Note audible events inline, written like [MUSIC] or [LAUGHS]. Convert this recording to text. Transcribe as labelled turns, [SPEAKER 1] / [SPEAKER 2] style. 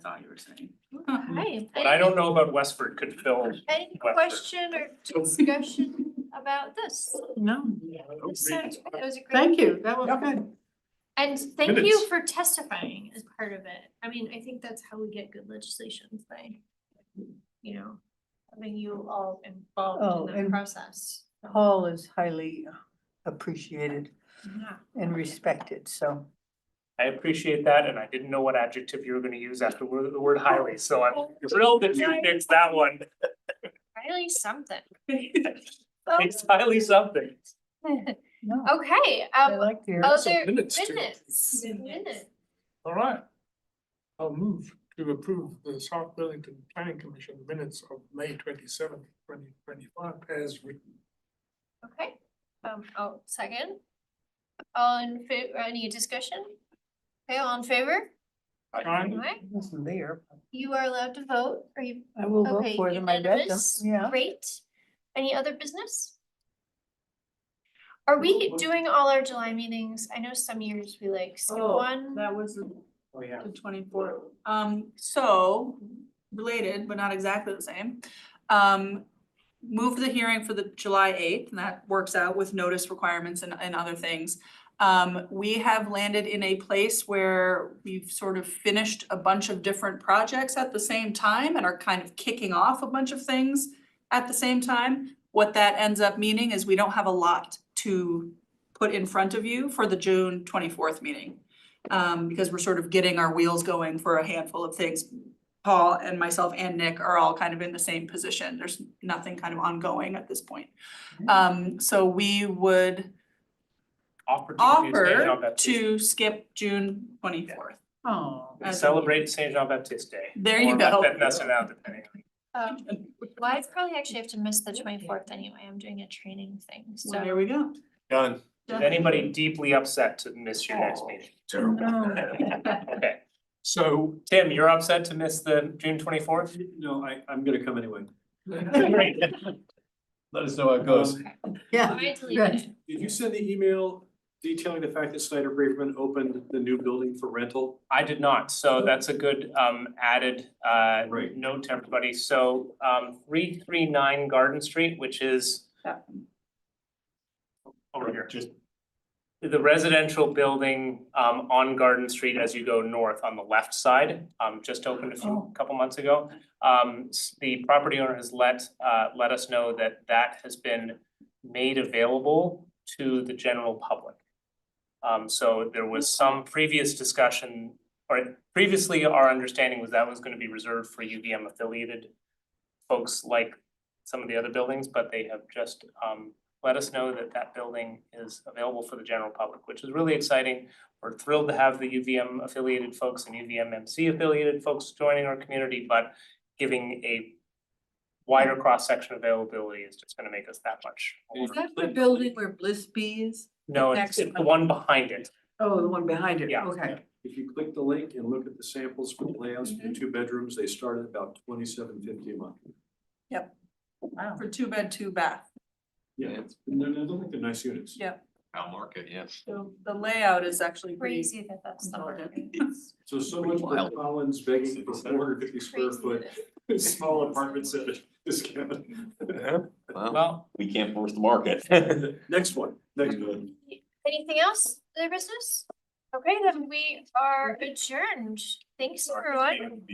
[SPEAKER 1] saying.
[SPEAKER 2] Hi.
[SPEAKER 3] What I don't know about Westford could fill,
[SPEAKER 2] Any
[SPEAKER 3] Westford.
[SPEAKER 2] question or discussion about [LAUGHS] this?
[SPEAKER 4] No,
[SPEAKER 2] This sounds, Oh, great. that was a great.
[SPEAKER 4] thank you, that was good.
[SPEAKER 2] And thank
[SPEAKER 3] Minutes.
[SPEAKER 2] you for testifying as part of it. I mean, I think that's how we get good legislations by, you know, having you all
[SPEAKER 4] Oh,
[SPEAKER 2] involved in the
[SPEAKER 4] and-
[SPEAKER 2] process.
[SPEAKER 4] Paul is highly appreciated
[SPEAKER 2] Yeah.
[SPEAKER 4] and respected, so.
[SPEAKER 3] I appreciate that, and I didn't know what adjective you were gonna use after wor- the word highly, so
[SPEAKER 1] Oh,
[SPEAKER 3] I'm thrilled that you fixed that one. [LAUGHS]
[SPEAKER 2] Really something.
[SPEAKER 3] It's highly something.
[SPEAKER 4] No,
[SPEAKER 2] Okay,
[SPEAKER 4] I
[SPEAKER 2] um,
[SPEAKER 4] like the.
[SPEAKER 2] other
[SPEAKER 5] minutes to-
[SPEAKER 2] minutes, minutes.
[SPEAKER 5] All right. I'll move to approve the South Burlington Planning Commission minutes of May twenty seventh, twenty twenty five as written.
[SPEAKER 2] Okay, um, oh, second. All in favor, any discussion? Okay, all in favor?
[SPEAKER 5] Aye.
[SPEAKER 2] Alright,
[SPEAKER 4] Wasn't there. but
[SPEAKER 2] you are allowed to vote, are you?
[SPEAKER 4] I will vote
[SPEAKER 2] Okay,
[SPEAKER 4] for them, I read them,
[SPEAKER 2] unanimous,
[SPEAKER 4] yeah.
[SPEAKER 2] Great. Any other business? Are we doing all our July meetings? I know some years we like skip
[SPEAKER 1] Oh,
[SPEAKER 2] one.
[SPEAKER 1] That was the-
[SPEAKER 3] Oh, yeah.
[SPEAKER 1] the twenty-fourth. Um, so, related, but not exactly the same. Um, moved the hearing for the July eighth, and that works out with notice requirements and, and other things. Um, we have landed in a place where we've sort of finished a bunch of different projects at the same time and are kind of kicking off a bunch of things at the same time. What that ends up meaning is we don't have a lot to put in front of you for the June twenty-fourth meeting. Um, because we're sort of getting our wheels going for a handful of things. Paul and myself and Nick are all kind of in the same position. There's nothing kind of ongoing at this point. Um, so we would
[SPEAKER 3] Opportunity to Saint John
[SPEAKER 1] offer
[SPEAKER 3] Baptist.
[SPEAKER 1] to skip June twenty-fourth.
[SPEAKER 4] Oh,
[SPEAKER 1] as a
[SPEAKER 3] Celebrate Saint John Baptist Day.
[SPEAKER 1] There you
[SPEAKER 3] Or
[SPEAKER 1] go.
[SPEAKER 3] let that mess it out depending.
[SPEAKER 2] Um, well, I probably actually have to miss the twenty-fourth anyway, I'm doing a training thing,
[SPEAKER 1] So
[SPEAKER 2] so.
[SPEAKER 1] there we go.
[SPEAKER 6] Done.
[SPEAKER 3] Is anybody deeply upset to miss your
[SPEAKER 1] Oh.
[SPEAKER 3] next meeting? Okay,
[SPEAKER 5] So,
[SPEAKER 3] Tim, you're upset to miss the June twenty-fourth?
[SPEAKER 6] No, I, I'm gonna come anyway.
[SPEAKER 3] [LAUGHS] Great.
[SPEAKER 6] Let us know how it goes.
[SPEAKER 2] Okay.
[SPEAKER 4] yeah.
[SPEAKER 2] I deleted it.
[SPEAKER 6] Did you send the email detailing the fact that Snyder Braverman opened the new building for rental?
[SPEAKER 3] I did not, so that's a good um added uh
[SPEAKER 6] Right.
[SPEAKER 3] note to everybody, so um three three nine Garden Street, which is
[SPEAKER 1] That
[SPEAKER 3] over here.
[SPEAKER 6] Just
[SPEAKER 3] The residential building um on Garden Street as you go north on the left side, um just opened a few, couple months ago. Um s- the property owner has let uh let us know that that has been made available to the general public. Um so there was some previous discussion, or previously our understanding was that was gonna be reserved for UVM affiliated folks like some of the other buildings, but they have just um let us know that that building is available for the general public, which is really exciting. We're thrilled to have the UVM affiliated folks and UVM MC affiliated folks joining our community, but giving a wider cross-section availability is just gonna make us that much more.
[SPEAKER 4] Is that the building where Bliss Bee is?
[SPEAKER 3] No, it's it's the one behind it.
[SPEAKER 4] Oh, the one behind it,
[SPEAKER 3] Yeah.
[SPEAKER 4] okay.
[SPEAKER 6] If you click the link and look at the samples for the layouts for the two bedrooms, they start at about twenty-seven fifty a month.
[SPEAKER 4] Wow.
[SPEAKER 1] For two bed, two bath.
[SPEAKER 6] Yeah, it's, and they're, they're, they're nice units.
[SPEAKER 1] Yeah.
[SPEAKER 7] I'll mark it, yes.
[SPEAKER 1] So the layout is actually pretty.
[SPEAKER 2] Crazy that that's the word.
[SPEAKER 1] intelligent.
[SPEAKER 6] So so much for
[SPEAKER 7] Wild.
[SPEAKER 6] Collins begging for four
[SPEAKER 1] [LAUGHS]
[SPEAKER 6] hundred fifty square
[SPEAKER 2] Crazy
[SPEAKER 6] foot, [LAUGHS]
[SPEAKER 2] that-
[SPEAKER 6] small apartments at a discount.
[SPEAKER 7] Well,
[SPEAKER 3] Well,
[SPEAKER 7] we can't force the market. [LAUGHS]
[SPEAKER 6] Next one, next one.
[SPEAKER 2] Anything else, other business? Okay, then we are adjourned. Thanks, everyone.